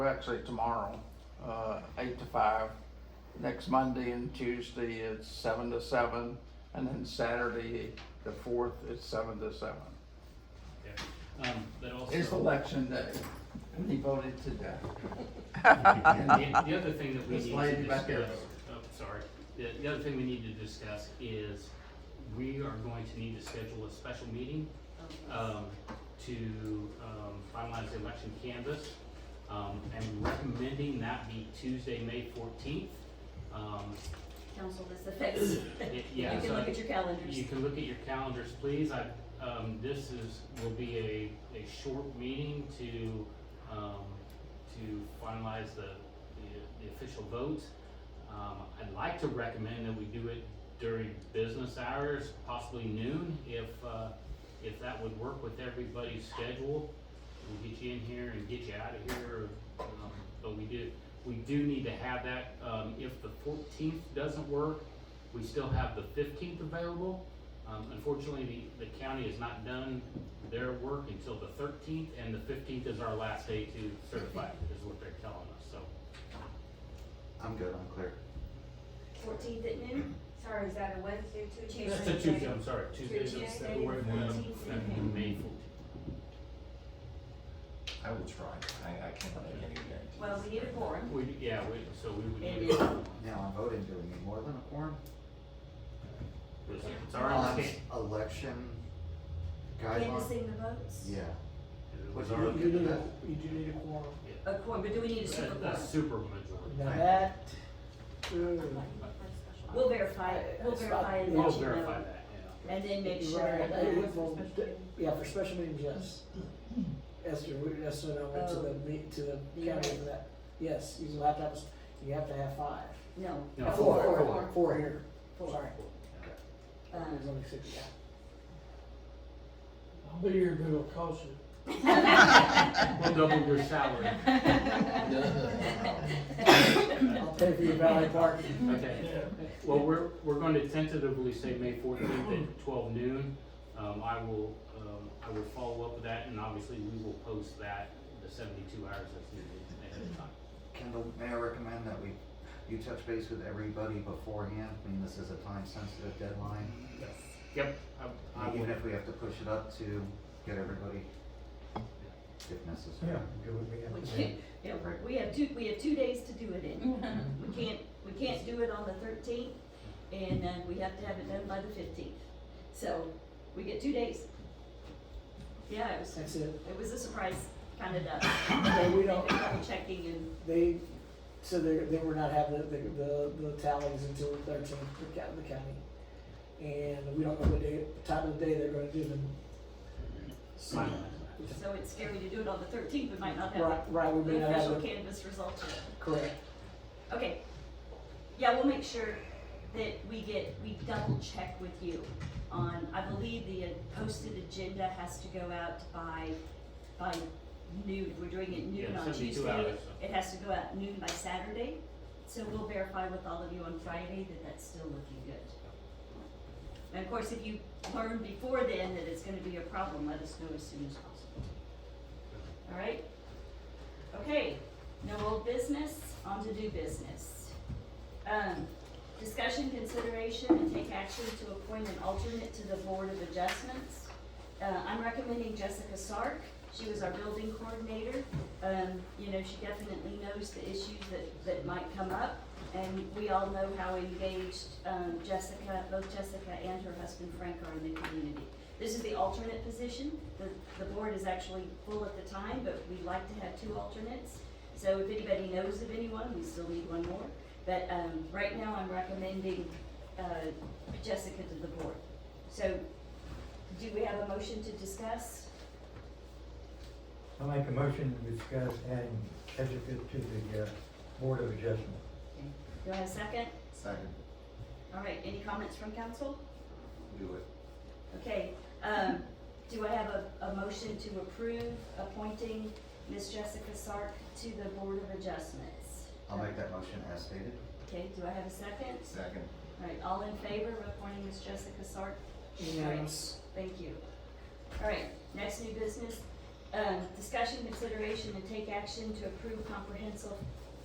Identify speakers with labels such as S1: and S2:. S1: actually tomorrow, uh, eight to five. Next Monday and Tuesday, it's seven to seven, and then Saturday, the fourth, it's seven to seven.
S2: Yeah. Um, but also.
S1: It's election day, and he voted today.
S2: The, the other thing that we
S1: This
S2: need to
S1: lady back there.
S2: discuss, oh, sorry, the, the other thing we need to discuss is we are going to need to schedule a special meeting, um, to, um, finalize the election canvas. Um, I'm recommending that be Tuesday, May fourteenth. Um,
S3: Council, this affects.
S2: y- yeah,
S3: You
S2: so
S3: can look at your calendars.
S2: you can look at your calendars, please. I, um, this is, will be a, a short meeting to, um, to finalize the, the, the official vote. Um, I'd like to recommend that we do it during business hours, possibly noon, if, uh, if that would work with everybody's schedule. We'll get you in here and get you out of here, um, but we do, we do need to have that, um, if the fourteenth doesn't work, we still have the fifteenth available. Um, unfortunately, the, the county has not done their work until the thirteenth, and the fifteenth is our last day to certify, is what they're telling us, so.
S4: I'm good, I'm clear.
S3: Fourteenth at noon? Sorry, is that a Wednesday, Tuesday?
S2: That's a Tuesday, I'm sorry, Tuesday,
S3: Tuesday,
S2: February,
S3: fourteenth.
S2: May fourteenth.
S4: I will try, I, I can't make any guarantees.
S3: Well, we need a forum.
S2: We, yeah, we, so we would.
S3: And
S2: need-
S4: Now, I'm voting, do we need more than a quorum?
S2: It's our understanding,
S4: On Election guidelines,
S3: canvassing the votes?
S4: yeah.
S2: it
S4: What
S2: was
S4: do
S2: our,
S4: you
S5: You
S4: do?
S2: a,
S5: need a, you do need a quorum.
S3: A quorum, but do we need a super
S2: a
S3: quorum?
S2: super majority.
S5: Now that, uh,
S3: We'll verify, it. we'll
S5: It's
S3: verify
S5: fine.
S3: and
S2: We'll
S3: let you
S2: verify
S3: know.
S2: that, yeah.
S3: And then make
S5: you're
S3: sure
S5: right,
S3: that,
S5: it would go- yeah, for special meetings, yes. Esther, we, Esther and I went to the, me- to Oh. the
S3: You're
S5: county
S3: right.
S5: for that, yes, you have to have, s- you have to have five.
S3: no.
S2: No,
S5: Four,
S2: four,
S5: four, Uh. four here,
S3: Four. Um,
S5: there's only six, yeah. I'll be here, but it'll cost you.
S2: We'll double your salary.
S5: I'll pay for your valet parking.
S2: Okay. Well, we're, we're going to tentatively say May fourteenth at twelve noon. Um, I will, um, I will follow up with that and obviously we will post that the seventy-two hours that's needed ahead of time.
S4: Can the mayor recommend that we, you touch base with everybody beforehand, I mean, this is a time sensitive deadline?
S2: Yep. I- I will-
S4: Even if we have to push it up to get everybody, if necessary.
S3: We can't, yeah, we have two, we have two days to do it in.
S5: Mm-hmm.
S3: We can't, we can't do it on the thirteenth, and, uh, we have to have it done by the fifteenth. So, we get two days. Yeah, it was,
S5: That's it,
S3: it was a surprise, kind of, done.
S5: and we
S3: They've
S5: don't,
S3: been double checking and,
S5: they, so they, they were not having the, the, the tallies until the thirteenth, the county, the county. And we don't know what day, time of the day they're gonna do them.
S2: Fine.
S3: so it's scary to do it on the thirteenth, we might not have
S5: Right, right, we may
S3: the
S5: not have
S3: official
S5: it,
S3: canvas results yet.
S5: correct,
S3: Okay. Yeah, we'll make sure that we get, we double check with you on, I believe the uh, posted agenda has to go out by, by noon. We're doing it noon
S2: Yeah,
S3: on
S2: 72
S3: Tuesday.
S2: hours, so.
S3: It has to go out noon by Saturday. So we'll verify with all of you on Friday that that's still looking good. And of course, if you learn before then that it's gonna be a problem, let us know as soon as possible. All right? Okay, no old business, on to do business. Um, discussion, consideration, and take action to appoint an alternate to the Board of Adjustments. Uh, I'm recommending Jessica Sark. She was our building coordinator. Um, you know, she definitely knows the issues that, that might come up. And we all know how engaged, um, Jessica, both Jessica and her husband Frank are in the community. This is the alternate position. The, the board is actually full at the time, but we like to have two alternates. So if anybody knows of anyone, we still need one more. But, um, right now I'm recommending, uh, Jessica to the board. So do we have a motion to discuss?
S6: I'll make a motion to discuss adding Jessica to the uh, Board of Adjustment.
S3: Do I have a second?
S4: Second,
S3: All right, any comments from council?
S4: do it.
S3: Okay, um, do I have a, a motion to approve appointing Miss Jessica Sark to the Board of Adjustments?
S4: I'll make that motion as stated.
S3: Okay, do I have a second?
S4: Second.
S3: All right, all in favor of appointing Miss Jessica Sark?
S5: unanimous.
S3: Thank you. All right, next new business, uh, Um, discussion, consideration, and take action to approve comprehensive